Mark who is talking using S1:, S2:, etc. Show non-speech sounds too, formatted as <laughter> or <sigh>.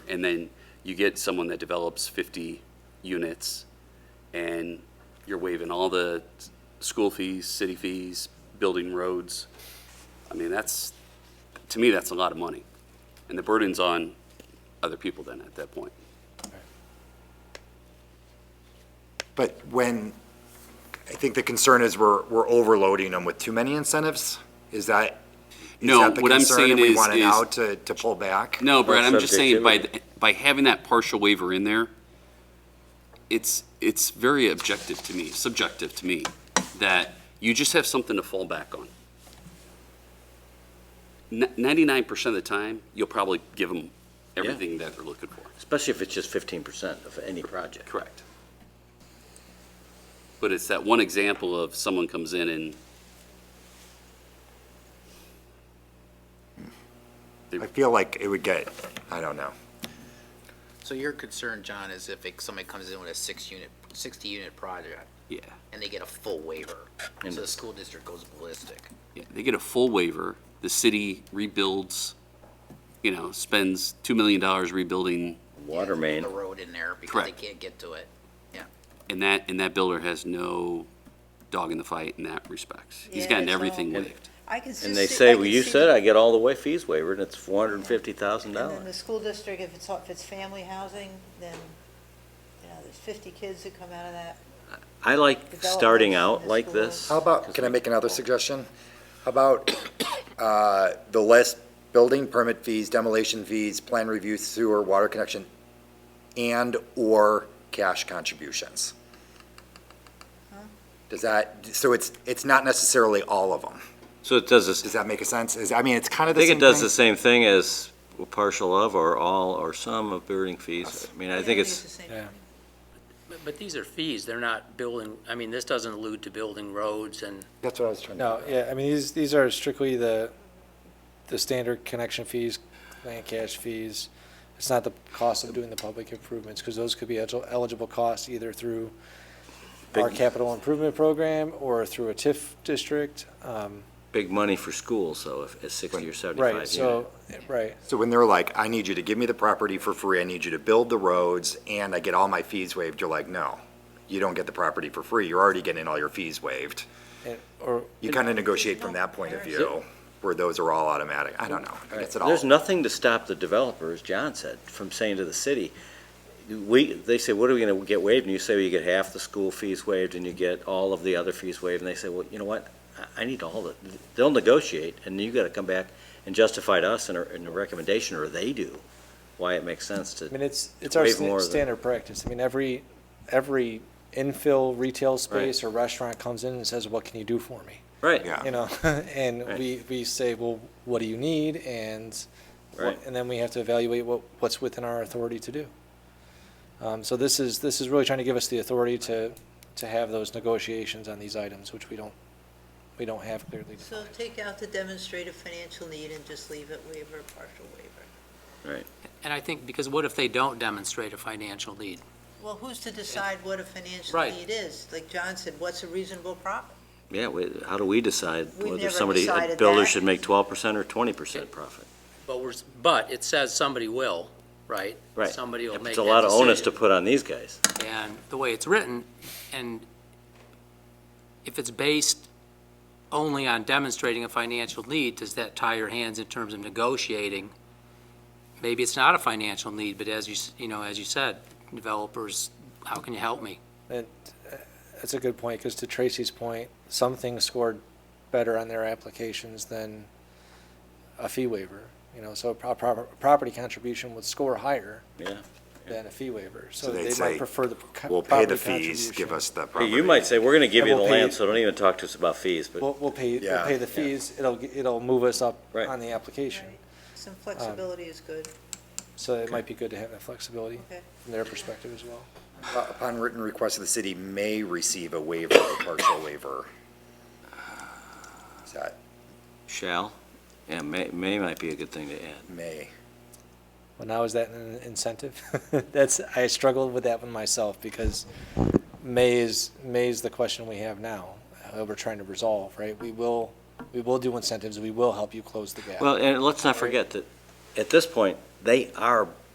S1: and then you get someone that develops 50 units, and you're waiving all the s- school fees, city fees, building roads. I mean, that's, to me, that's a lot of money. And the burden's on other people then at that point.
S2: But when, I think the concern is we're, we're overloading them with too many incentives? Is that, is
S1: No,
S2: that the
S1: what I'm
S2: concern
S1: saying
S2: and we
S1: is-
S2: want it
S1: is-
S2: now to, to pull back?
S1: No, Brad, I'm just saying by,
S3: subjectivity.
S1: th- by having that partial waiver in there, it's, it's very objective to me, subjective to me, that you just have something to fall back on. Ninety-nine percent of the time, you'll probably give them everything that they're looking for.
S3: Especially if it's just fifteen percent of any project.
S1: Correct. But it's that one example of someone comes in and
S2: I feel like it would get, I don't know.
S4: So your concern, John, is if it- somebody comes in with a six-unit, sixty-unit project
S1: Yeah,
S4: and they get a full waiver, so the school district goes ballistic.
S1: yeah, they get a full waiver. The city rebuilds, you know, spends $2 million rebuilding,
S3: Water main,
S4: The road in there because they
S1: Correct.
S4: can't get to it. Yeah.
S1: and that, and that builder has no dog in the fight in that respects. He's
S5: Yeah,
S1: gotten
S5: it's
S1: everything
S5: all-
S1: waived.
S5: I can just.
S3: and they
S5: see-
S3: say,
S5: I
S3: well,
S5: can
S3: you
S5: see
S3: said
S5: the-
S3: I get all the way fees waiver, and it's four hundred and fifty thousand
S5: And then the
S3: dollars.
S5: school district, if it's, if it's family housing, then, you know, there's 50 kids that come out of that.
S3: I like
S5: Development
S3: starting
S5: in
S3: out
S5: the
S3: like
S5: schools.
S3: this.
S2: How about, can I make another suggestion? How about uh, the list, building permit fees, demolition fees, plan review, sewer, water connection, and/or cash contributions? Does that, so it's, it's not necessarily all of them.
S3: So it does this,
S2: Does that make a sense? Is, I mean, it's kind
S3: I
S2: of the
S3: think
S2: same
S3: it does
S2: thing.
S3: the same thing as partial of or all or some of building fees. I mean, I think it's,
S5: the same.
S6: But- But these are fees, they're not building, I mean, this doesn't allude to building roads and,
S2: That's what I was trying to.
S7: No, yeah, I mean, these, these are strictly the, the standard connection fees, land cash fees. It's not the cost of doing the public improvements, because those could be el- eligible costs either through our capital improvement program or through a TIF district. Um,
S3: big money for schools, so if it's sixty or seventy-five
S7: Right,
S3: units.
S7: so, eh, right,
S2: So when they're like, I need you to give me the property for free, I need you to build the roads, and I get all my fees waived, you're like, no, you don't get the property for free, you're already getting all your fees waived.
S7: and- or,
S2: You kind of negotiate from that point of view, where those are all automatic. I don't know. I guess it all.
S3: There's nothing to stop the developer, as John said, from saying to the city, we, they say, what are we gonna get waived? And you say, well, you get half the school fees waived and you get all of the other fees waived. And they say, well, you know what? I- I need all the, they'll negotiate and you gotta come back and justify to us in a, in a recommendation, or they do, why it makes sense
S7: I mean,
S3: to,
S7: it's, it's our
S3: Waive more
S7: sta-
S3: of the-
S7: standard practice. I mean, every, every infill retail space or restaurant comes in and says, what can you do for me?
S3: right.
S2: Yeah.
S7: you know, <laughs> and
S3: Right.
S7: we, we say, well, what do you need? And, what-
S3: Right.
S7: and then we have to evaluate what, what's within our authority to do. Um, so this is, this is really trying to give us the authority to, to have those negotiations on these items, which we don't, we don't have clearly.
S5: So take out the demonstrative financial need and just leave it waiver, partial waiver.
S6: and I think, because what if they don't demonstrate a financial need?
S5: Well, who's to decide what a financial
S6: Right.
S5: need is? Like John said, what's a reasonable profit?
S3: Yeah, we- how do we decide
S5: We've
S3: whether
S5: never
S3: somebody, a
S5: decided
S3: builder
S5: that.
S3: should make twelve percent or twenty percent profit?
S6: But we're, s- but it says somebody will, right?
S3: Right.
S6: Somebody will make
S3: It's a
S6: that
S3: lot of onus to
S6: decision.
S3: put on these guys.
S6: And the way it's written, and if it's based only on demonstrating a financial need, does that tie your hands in terms of negotiating? Maybe it's not a financial need, but as you, s- you know, as you said, developers, how can you help me?
S7: And uh, that's a good point, because to Tracy's point, some things scored better on their applications than a fee waiver. You know, so a pro- pro- property contribution would score higher
S3: Yeah.
S7: than a fee waiver. So
S2: they'd
S7: they
S2: say,
S7: might prefer the co-
S2: We'll pay the
S7: property
S2: fees, give
S7: contribution.
S2: us the
S3: Hey,
S2: property.
S3: You might say, we're gonna give
S7: And
S3: you the
S7: we'll pay-
S3: land, so don't even talk to us about fees, but.
S7: We'll, we'll pay,
S2: Yeah.
S7: we'll pay the
S3: Yeah.
S7: fees, it'll, g- it'll move us up
S3: Right.
S7: on the application.
S5: Right. Some flexibility is good.
S7: So it might be good to have that flexibility
S5: Okay.
S7: from their perspective as well.
S2: Upon written request of the city may receive a waiver or partial waiver. Is that
S3: Shall? Yeah, may, may might be a good thing to add.
S2: may?
S7: Well, now is that an incentive? <laughs> That's, I struggled with that one myself because may is, may is the question we have now, uh, we're trying to resolve, right? We will, we will do incentives, we will help you close the gap.
S3: Well, and let's not forget that, at this point, they are